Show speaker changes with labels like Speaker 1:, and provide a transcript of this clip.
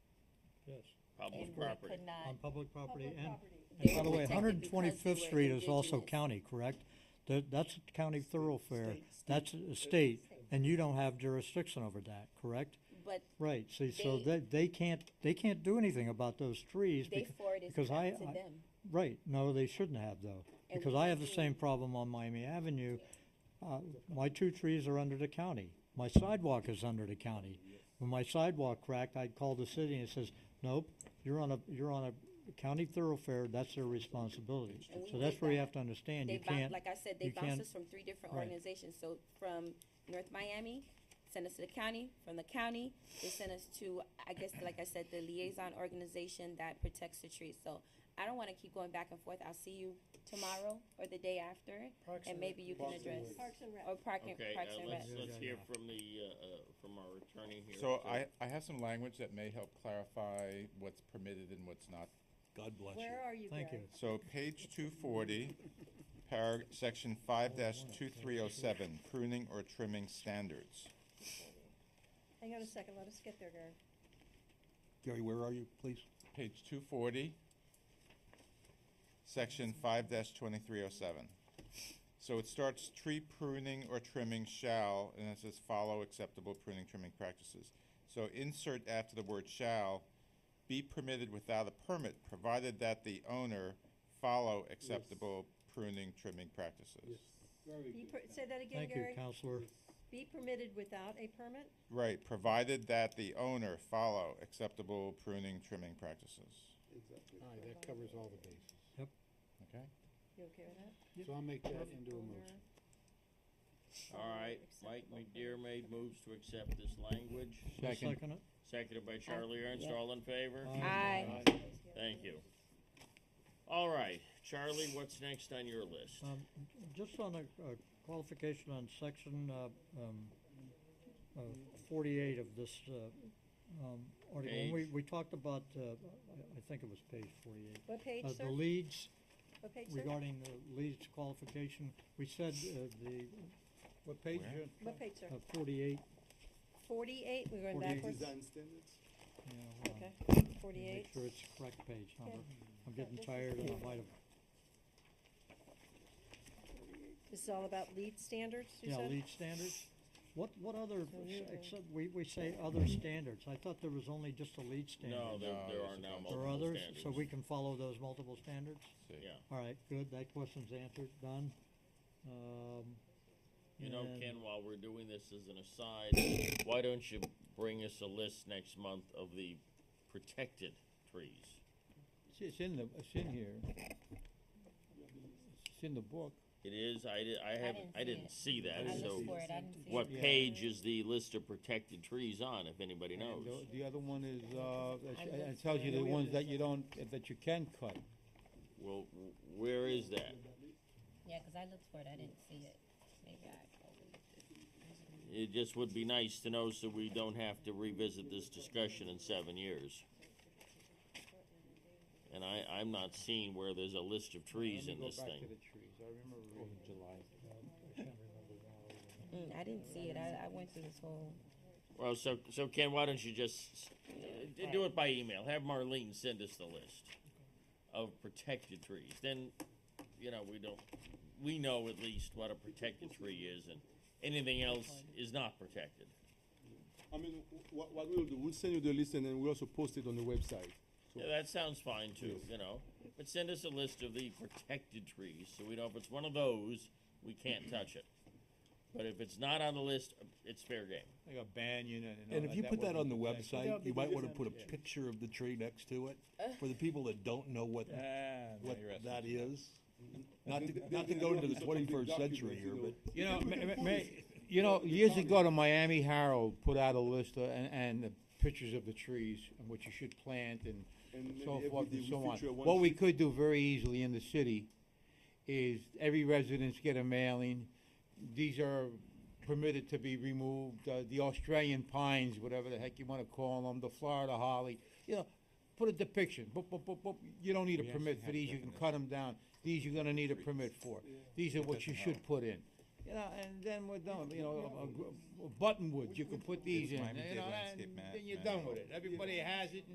Speaker 1: yes,
Speaker 2: Public
Speaker 3: and we
Speaker 2: property.
Speaker 3: could not.
Speaker 1: on public property
Speaker 4: Public
Speaker 1: and,
Speaker 4: property.
Speaker 1: and by the way,
Speaker 3: Protected
Speaker 1: Hundred and
Speaker 3: because
Speaker 1: Twenty-Fifth
Speaker 3: we're
Speaker 1: Street is also
Speaker 3: indigenous.
Speaker 1: county, correct? That, that's a county thoroughfare, that's a state, and you don't have jurisdiction over that, correct?
Speaker 3: But
Speaker 1: Right, see, so they,
Speaker 3: They-
Speaker 1: they can't, they can't do anything about those trees
Speaker 3: they
Speaker 1: because,
Speaker 3: forwarded it
Speaker 1: because I,
Speaker 3: back to
Speaker 1: I-
Speaker 3: them.
Speaker 1: right, no, they shouldn't have though.
Speaker 3: And
Speaker 1: Because
Speaker 3: we
Speaker 1: I have the
Speaker 3: do.
Speaker 1: same problem on Miami Avenue. Uh, my two trees are under the county. My sidewalk is under the county. When my sidewalk cracked, I'd call the city and it says, nope, you're on a, you're on a county thoroughfare, that's their responsibility.
Speaker 3: And we
Speaker 1: So
Speaker 3: did
Speaker 1: that's where you
Speaker 3: that.
Speaker 1: have to understand, you
Speaker 3: They bounced,
Speaker 1: can't,
Speaker 3: like I said, they
Speaker 1: you
Speaker 3: bounced
Speaker 1: can't-
Speaker 3: us from three different
Speaker 1: right.
Speaker 3: organizations, so from North Miami, sent us to the county, from the county, they sent us to, I guess, like I said, the liaison organization that protects the trees, so I don't wanna keep going back and forth, I'll see you tomorrow or the day after,
Speaker 5: Parks
Speaker 3: and
Speaker 5: and
Speaker 3: maybe you can
Speaker 5: Parks and
Speaker 3: address,
Speaker 5: Rec.
Speaker 4: Parks and Rec.
Speaker 3: or Park and,
Speaker 2: Okay,
Speaker 3: Parks
Speaker 2: uh,
Speaker 3: and Rec.
Speaker 2: let's,
Speaker 1: Yeah,
Speaker 2: let's
Speaker 1: yeah,
Speaker 2: hear
Speaker 1: yeah.
Speaker 2: from the, uh, uh, from our attorney here.
Speaker 6: So I, I have some language that may help clarify what's permitted and what's not.
Speaker 7: God bless you.
Speaker 4: Where are you,
Speaker 1: thank you.
Speaker 4: Greg?
Speaker 6: So page two forty, parag, section five two three oh seven, pruning or trimming standards.
Speaker 4: Hang on a second, let us get there, Greg.
Speaker 7: Gary, where are you, please?
Speaker 6: Page two forty, section five twenty-three oh seven. So it starts, tree pruning or trimming shall, and it says follow acceptable pruning, trimming practices. So insert after the word shall, be permitted without a permit, provided that the owner follow acceptable pruning, trimming practices.
Speaker 4: Be per- Say that again,
Speaker 1: Thank you,
Speaker 4: Gary.
Speaker 1: Counselor.
Speaker 4: Be permitted without a permit?
Speaker 6: Right, provided that the owner follow acceptable pruning, trimming practices.
Speaker 5: All right, that covers all the bases.
Speaker 6: Okay?
Speaker 4: You okay with that?
Speaker 5: So I'll make that
Speaker 4: Perfect.
Speaker 5: into a motion.
Speaker 2: All right, Mike McDermott moves to accept this language,
Speaker 1: Can I
Speaker 6: Second.
Speaker 1: Second it?
Speaker 2: seconded by Charlie Ernst,
Speaker 3: Uh, yeah.
Speaker 2: all in favor?
Speaker 1: Aye.
Speaker 3: Aye.
Speaker 2: Thank you. All right, Charlie, what's next on your list?
Speaker 1: Um, just on a, a qualification on section, uh, um, uh, forty-eight of this, uh, um, article, when we,
Speaker 2: Page.
Speaker 1: we talked about, uh, I, I think it was page forty-eight.
Speaker 4: What page,
Speaker 1: Uh,
Speaker 4: sir?
Speaker 1: the leads,
Speaker 4: What page, sir?
Speaker 1: regarding the leads qualification, we said, uh, the, what page?
Speaker 6: Where?
Speaker 4: What page, sir?
Speaker 1: Uh, forty-eight,
Speaker 4: Forty-eight, we're going
Speaker 1: 48.
Speaker 4: backwards?
Speaker 1: yeah, hold on.
Speaker 4: Okay,
Speaker 1: uh, Let me
Speaker 4: forty-eight.
Speaker 1: Make sure it's the correct page number,
Speaker 4: Okay.
Speaker 1: I'm getting
Speaker 4: this is-
Speaker 1: tired and I might have,
Speaker 4: This is all about lead standards, you
Speaker 1: yeah,
Speaker 4: said?
Speaker 1: lead standards. What, what other,
Speaker 4: So you-
Speaker 1: except, we, we say other standards, I thought there was only just a lead standard.
Speaker 2: No, there,
Speaker 6: No,
Speaker 2: there
Speaker 6: there's
Speaker 2: are
Speaker 6: a
Speaker 2: now
Speaker 6: bunch.
Speaker 1: There are
Speaker 2: multiple
Speaker 1: others,
Speaker 2: standards.
Speaker 1: so we can follow those multiple standards?
Speaker 6: See.
Speaker 2: Yeah,
Speaker 1: All right, good, that question's answered, done. Um,
Speaker 2: you know,
Speaker 1: and-
Speaker 2: Ken, while we're doing this as an aside, why don't you bring us a list next month of the protected trees?
Speaker 8: It's- It's in the, it's in here. It's in the book.
Speaker 2: It is, I di- I haven't,
Speaker 3: didn't
Speaker 2: I
Speaker 3: see
Speaker 2: didn't see
Speaker 3: it. I
Speaker 2: that,
Speaker 3: looked
Speaker 2: so
Speaker 3: for it, I didn't see it.
Speaker 2: what
Speaker 8: Yeah.
Speaker 2: page is the list of protected trees on, if anybody
Speaker 8: And
Speaker 2: knows?
Speaker 8: the- The other one is, uh, it-
Speaker 3: I
Speaker 8: it
Speaker 3: looked
Speaker 8: tells you
Speaker 3: for
Speaker 8: the
Speaker 3: it.
Speaker 8: ones that you don't, that you can cut.
Speaker 2: Well, w- where is that?
Speaker 3: Yeah, cause I looked for it, I didn't see it, maybe I
Speaker 2: It just would be nice to know so we don't have to revisit this discussion in seven years. And I, I'm not seeing where there's a list of trees in this
Speaker 8: Go back to
Speaker 2: thing.
Speaker 8: the trees. I remember reading July.
Speaker 3: Mm, I didn't see it. I, I went through this whole.
Speaker 2: Well, so, so Ken, why don't you just, uh, d- do it by email, have Marlene send us the list of protected trees, then, you know, we don't, we know at least what a protected tree is and anything else is not protected.
Speaker 9: I mean, what, what we'll do, we'll send you the list and then we'll also post it on the website.
Speaker 2: Yeah, that sounds fine too, you know, but send us a list of the protected trees, so we know if it's one of those, we can't touch it. But if it's not on the list, it's fair game.
Speaker 8: Like a banyan and all that.
Speaker 7: And if you put that
Speaker 8: would
Speaker 7: on the
Speaker 8: be protected.
Speaker 7: website, you might wanna put a
Speaker 8: Yeah.
Speaker 7: picture of the tree next to it, for the people that don't know what,
Speaker 8: Ah, now
Speaker 7: what
Speaker 8: you're asking.
Speaker 7: that is. Not
Speaker 9: They-
Speaker 7: to,
Speaker 9: they-
Speaker 7: not to
Speaker 9: they
Speaker 7: go
Speaker 9: do
Speaker 7: into the
Speaker 9: have something
Speaker 7: twenty-first century
Speaker 9: documented,
Speaker 7: here,
Speaker 9: you
Speaker 7: but
Speaker 9: know.
Speaker 8: You know,
Speaker 9: If we
Speaker 8: ma-
Speaker 9: can
Speaker 8: ma-
Speaker 9: pull
Speaker 8: ma-
Speaker 9: it,
Speaker 8: you know,
Speaker 9: the
Speaker 8: years
Speaker 9: county.
Speaker 8: ago, the Miami Herald put out a list uh, and, and the pictures of the trees and what you should plant and
Speaker 9: And
Speaker 8: so
Speaker 9: maybe
Speaker 8: forth
Speaker 9: every
Speaker 8: and
Speaker 9: day
Speaker 8: so
Speaker 9: we
Speaker 8: on.
Speaker 9: feature one
Speaker 8: What we
Speaker 9: tree.
Speaker 8: could do very easily in the city is every residence get a mailing. These are permitted to be removed, uh, the Australian pines, whatever the heck you wanna call them, the Florida holly, you know, put a depiction, boop, boop, boop, boop. You don't need a
Speaker 6: We actually
Speaker 8: permit for
Speaker 6: have
Speaker 8: these, you can cut them down. These you're gonna need a permit for. These are what you should put in. You know, and then we're done, you know, a- a, gr- a buttonwood, you can put these in,
Speaker 6: Miami
Speaker 8: you know,
Speaker 6: Dade landscape
Speaker 8: and
Speaker 6: man-
Speaker 8: then you're
Speaker 6: man-
Speaker 8: done with it. Everybody has it